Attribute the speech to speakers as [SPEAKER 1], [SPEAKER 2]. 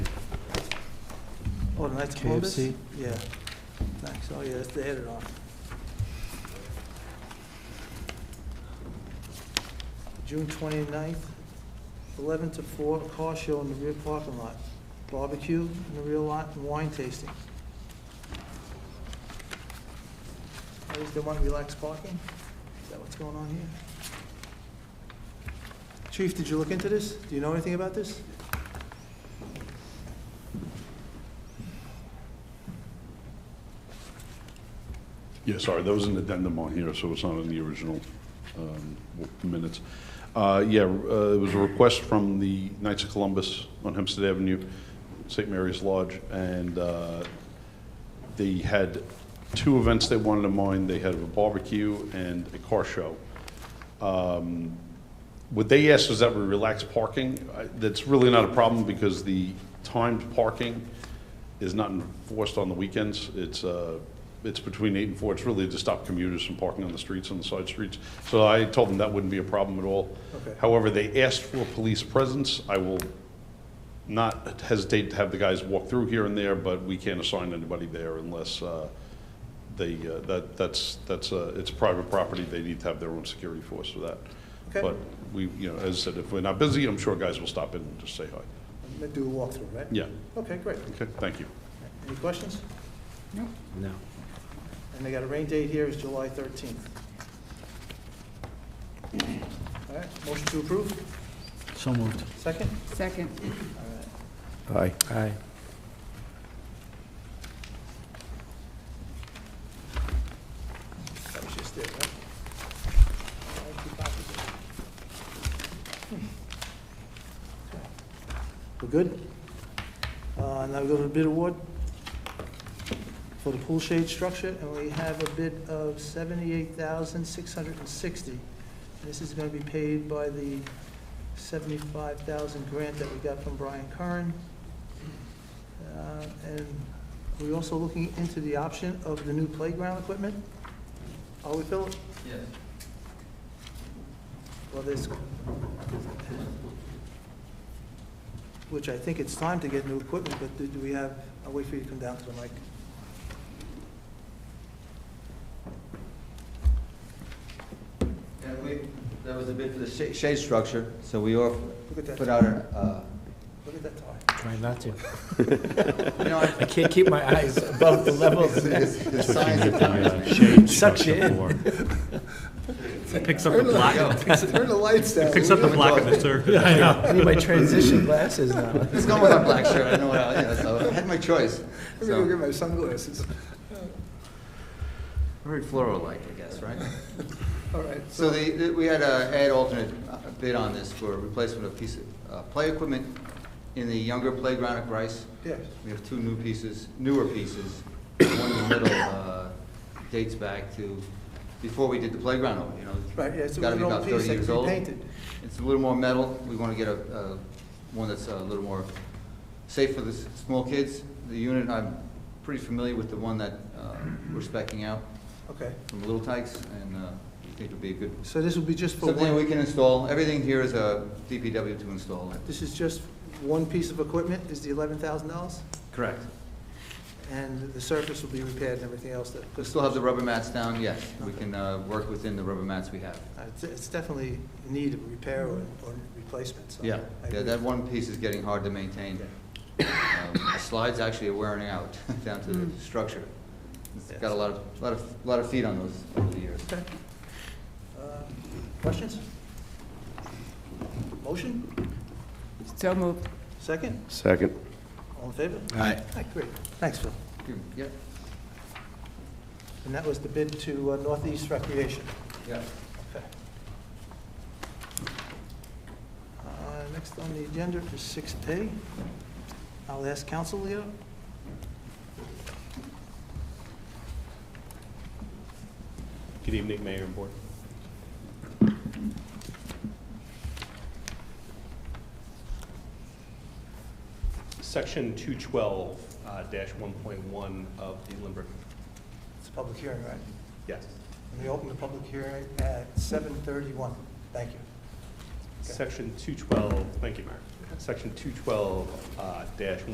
[SPEAKER 1] Oh, tonight's Columbus?
[SPEAKER 2] KFC.
[SPEAKER 1] Yeah. Thanks. Oh, yeah, that's the header on. June 29th, 11 to 4, car show in the rear parking lot. Barbecue in the rear lot and wine tasting. At least they want relaxed parking? Is that what's going on here? Chief, did you look into this? Do you know anything about this?
[SPEAKER 3] Yeah, sorry, there was an addendum on here, so it's not in the original um, w- minutes. Uh, Yeah, uh, it was a request from the Knights of Columbus on Hempstead Avenue, St. Mary's Lodge, and uh, they had two events they wanted to mind. They had a barbecue and a car show. Um, What they asked was that we relax parking. I- That's really not a problem because the timed parking is not enforced on the weekends. It's, uh, it's between eight and four. It's really to stop commuters from parking on the streets, on the side streets. So I told them that wouldn't be a problem at all.
[SPEAKER 1] Okay.
[SPEAKER 3] However, they asked for police presence. I will not hesitate to have the guys walk through here and there, but we can't assign anybody there unless uh, they, uh, that, that's, that's, uh, it's private property, they need to have their own security force for that.
[SPEAKER 1] Okay.
[SPEAKER 3] But we, you know, as I said, if we're not busy, I'm sure guys will stop in and just say hi.
[SPEAKER 1] Let's Do a walkthrough, right?
[SPEAKER 3] Yeah,
[SPEAKER 1] Okay, great.
[SPEAKER 3] okay, thank you.
[SPEAKER 1] Any questions?
[SPEAKER 2] No.
[SPEAKER 1] And they got a rain date here is July 13th. All right, motion to approve,
[SPEAKER 2] So moved.
[SPEAKER 1] second?
[SPEAKER 4] Second.
[SPEAKER 1] All right.
[SPEAKER 2] Aye. Aye.
[SPEAKER 1] That was just it, right? All right, two copies of it. Hmm. Okay. We're good? Uh, Now we go to the bid award for the pool shade structure, and we have a bid of $78,660. This is going to be paid by the $75,000 grant that we got from Brian Curran. Uh, And we're also looking into the option of the new playground equipment. Are we, Philip?
[SPEAKER 5] Yes.
[SPEAKER 1] Well, there's, which I think it's time to get new equipment, but do- do we have, I'll wait for you to come down to the mic.
[SPEAKER 5] And we, that was a bid for the sha- shade structure, so we off,
[SPEAKER 1] Look at
[SPEAKER 5] put
[SPEAKER 1] that,
[SPEAKER 5] out a,
[SPEAKER 1] look at that tie.
[SPEAKER 2] Try not to.
[SPEAKER 5] uh, you know,
[SPEAKER 2] I can't keep my eyes above the level.
[SPEAKER 5] it's- it's- it's science of
[SPEAKER 2] uh,
[SPEAKER 5] time.
[SPEAKER 2] Sucks you in.
[SPEAKER 6] Picks up the black,
[SPEAKER 1] Turn the lights down.
[SPEAKER 6] picks up the black of the
[SPEAKER 2] Yeah, I
[SPEAKER 6] circle.
[SPEAKER 2] know. I need my transition glasses now.
[SPEAKER 5] It's going with my black shirt, I know, what I- yeah, so I had my choice. So,
[SPEAKER 1] my sunglasses.
[SPEAKER 5] very floral-like, I guess, right?
[SPEAKER 1] All right,
[SPEAKER 5] So the, the- we had a, had alternate uh, bid on this for replacement of piece of, uh, play equipment in the younger playground at Bryce.
[SPEAKER 1] yes.
[SPEAKER 5] We have two new pieces, newer pieces. One in the middle uh, dates back to before we did the playground over, you know. it's
[SPEAKER 1] Right, yeah, so
[SPEAKER 5] gotta
[SPEAKER 1] an
[SPEAKER 5] be
[SPEAKER 1] old
[SPEAKER 5] about
[SPEAKER 1] piece
[SPEAKER 5] 30
[SPEAKER 1] that
[SPEAKER 5] years
[SPEAKER 1] can be
[SPEAKER 5] old.
[SPEAKER 1] painted.
[SPEAKER 5] It's a little more metal. We want to get a, a, one that's a little more safe for the s- small kids. The unit, I'm pretty familiar with the one that uh, we're specking out
[SPEAKER 1] Okay,
[SPEAKER 5] from Little Tykes, and uh, I think it'll be a good,
[SPEAKER 1] so this will be just for
[SPEAKER 5] something we
[SPEAKER 1] one,
[SPEAKER 5] can install. Everything here is a DPW to install.
[SPEAKER 1] this is just one piece of equipment, is the $11,000?
[SPEAKER 5] Correct.
[SPEAKER 1] And the surface will be repaired and everything else that,
[SPEAKER 5] We
[SPEAKER 1] because
[SPEAKER 5] still have the rubber mats down, yes. We can uh, work within the rubber mats we have.
[SPEAKER 1] Uh, it's- it's definitely in need of repair or or replacement, so.
[SPEAKER 5] Yeah,
[SPEAKER 1] I
[SPEAKER 5] yeah,
[SPEAKER 1] agree.
[SPEAKER 5] that one piece is getting hard to maintain. Um, The Slides actually are wearing out down to the structure. It's got a lot of, lot of, lot of feet on those over the years.
[SPEAKER 1] Okay. Uh, Questions? Motion?
[SPEAKER 4] So moved.
[SPEAKER 1] Second?
[SPEAKER 7] Second.
[SPEAKER 1] All in favor?
[SPEAKER 2] Aye.
[SPEAKER 1] Aye, great. Thanks, Phil.
[SPEAKER 5] Yep,
[SPEAKER 1] And that was the bid to uh, Northeast Recreation.
[SPEAKER 5] yep.
[SPEAKER 1] Okay. Uh, Next on the agenda is 6A. I'll ask council, Leo.
[SPEAKER 8] Good evening, Mayor and Board. Section uh, 212-1.1 of the Lindbergh,
[SPEAKER 1] It's a public hearing, right?
[SPEAKER 8] yes.
[SPEAKER 1] And we open the public hearing at 7:31. Thank you.
[SPEAKER 8] Section 212, thank you, Mayor. Section 212-1.1